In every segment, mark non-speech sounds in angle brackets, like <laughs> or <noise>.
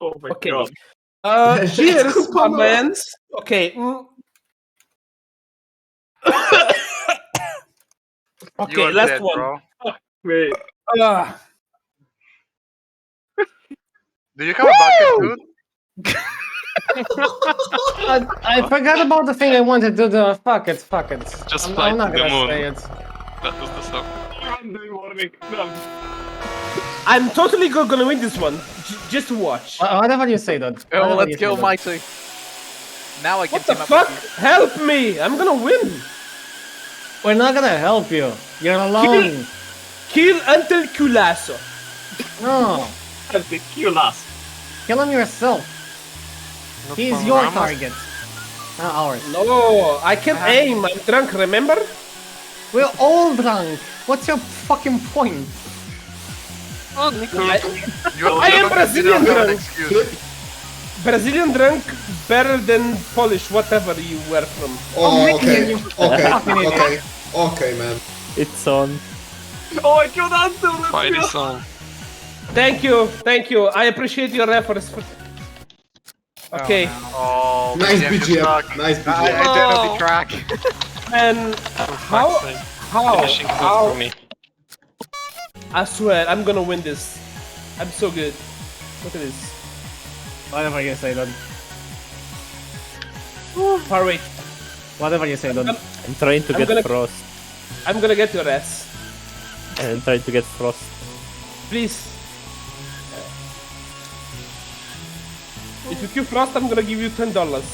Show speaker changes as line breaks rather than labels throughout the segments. Oh my
Okay.
god.
<laughs> Uh,
Cheers,
cheers, my
Papa.
man. Okay. mm.
<coughs> You
okay,
are
last
dead,
one.
bro.
Wait.
Ah,
Do you have a bucket, dude?
I, I forgot about the thing I wanted to do. Fuck it, fuck it.
Just
I'm,
fly
I'm not
to the
gonna
moon.
say it.
That was the song.
I'm doing warning. No.
I'm totally go- gonna win this one. J- just watch.
Wh- Whatever you say, dude. Whatever
Oh, let's
you
go,
say,
Mighty. Now I can
What the
team up
fuck?
with
Help me! I'm gonna win.
dude. We're not gonna help you. You're alone.
Kill until culasso.
No,
The kill us.
kill him yourself. He's your target, not ours.
No, I can't
Uh-huh.
aim. I'm drunk. Remember?
We're all drunk. What's your fucking point?
I-
You have
I am
you don't
Brazilian,
have an
bro.
excuse.
Brazilian drunk better than Polish, whatever you were from.
Oh,
you
okay. Okay.
fucking idiot.
Okay. Okay, man.
It's on.
Oh, I killed Anton. Let's
Mighty
go.
song.
Thank you, thank you. I appreciate your efforts. Okay,
Oh,
Nice
BGM, you
BGM.
suck.
Nice
I
BGM.
identity track.
and how? How?
Finishing good for
How?
me.
I swear, I'm gonna win this. I'm so good. Look at this.
Whatever you say, dude.
Far wait.
Whatever you say, dude.
I'm trying to
I'm
get
gonna-
frost.
I'm gonna get your ass.
I'm trying to get frost.
Please. If you kill Frost, I'm gonna give you ten dollars.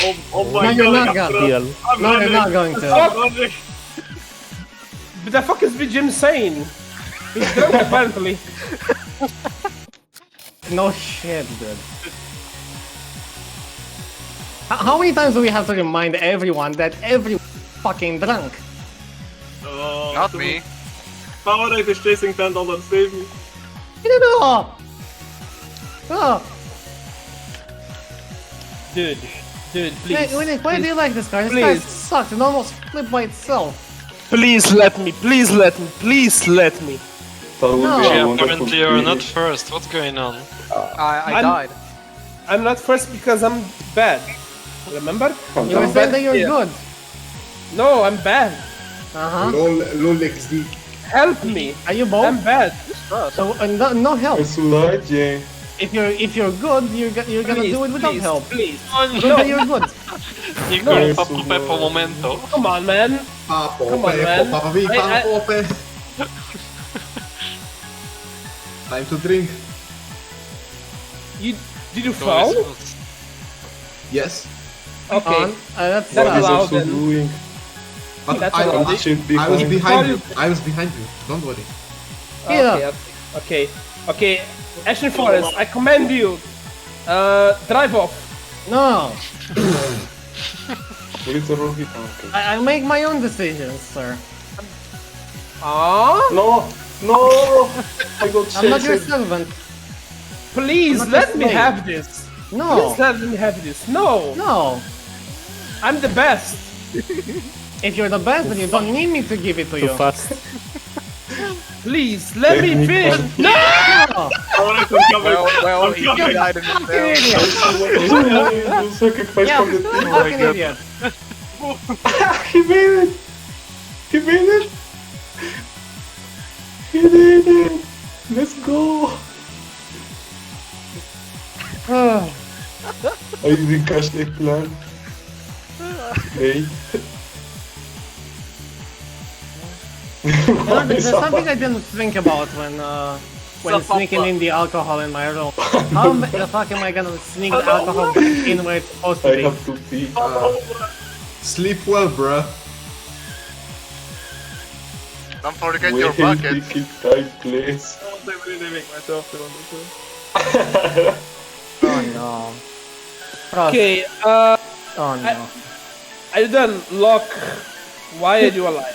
Oh, oh
No,
my
you're
god.
not gonna.
Deal.
I'm
No, you're
running.
not going to.
I'm running.
But the fuck is Jim saying? He's drunk <laughs> apparently.
No shit, dude. How- How many times do we have to remind everyone that everyone's fucking drunk?
Oh,
Not
dude.
me.
Powerade is chasing ten dollars. Save me.
No, no. Oh,
Dude, dude, please.
wait, wait, why do you like this car? This
Please.
car sucks. It almost flipped by itself.
Please let me, please let me, please let me.
No.
Yeah, apparently you're not first. What's going on?
I, I
I'm- <laughs>
died.
I'm not first because I'm bad. Remember?
You were saying that you're
Yeah.
good.
No, I'm bad. Uh-huh.
Uh huh.
Lol, lol XD.
Help me.
Are you
I'm
both?
bad.
So uh, no, no help.
Sludgy.
If you're if you're good, you're go- you're gonna
Please,
do it without
please,
help.
Please.
Good that you're
<laughs>
good.
You no,
it's
Papo
so
Pepo
good.
Momento.
Come on, man.
Papo,
Come on,
Pepo,
man.
Papa V,
I- I-
Papo, Pe- Time to drink.
You did you foul?
No,
Okay.
it's not.
On. Uh, that's
What
uh,
is allowed then.
doing? But
That's
I,
allowed.
I, I was behind you. I was behind you. Don't worry.
Yeah.
Okay, okay, okay. Ashen Forest, I command you. Uh, drive off.
no.
Literal hit.
I, I make my own decisions, sir.
Ah,
No, no. I got
I'm not your servant.
please
I'm not
let
a
me
slave.
have this.
No,
Please let me have this. No,
no.
I'm the best.
If you're the best, then you don't need me to give it to
Too
you.
fast.
Please let me finish. No,
Powerade is coming.
Well, well, he
coming.
died in his
Fucking
cell.
idiot. Yeah, fucking idiot.
He made it. He made it. He did it. né? Let's go. I didn't catch the plan. Hey.
You know, there's something I didn't think about when uh, when sneaking in the alcohol in my
<laughs>
room. How am- the fuck am I gonna sneak the alcohol back in where it's supposed to be?
to pee. sleep well, bruh.
Don't forget your bucket.
it time, please.
Oh, they really make myself feel understood.
Oh no. Frost.
Okay, uh,
Oh no.
I done lock. Why are you alive?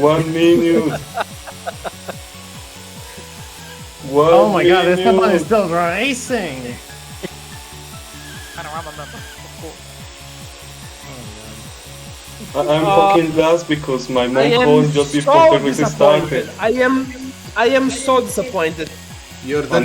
One minute. One
Oh my god, this
minute.
Esteban is still racing.
Panorama member. Of course.
I- I'm
Oh.
fucking last because my
I
mom
am
called just before
so
everything started.
disappointed. I am, I am so disappointed.
You're the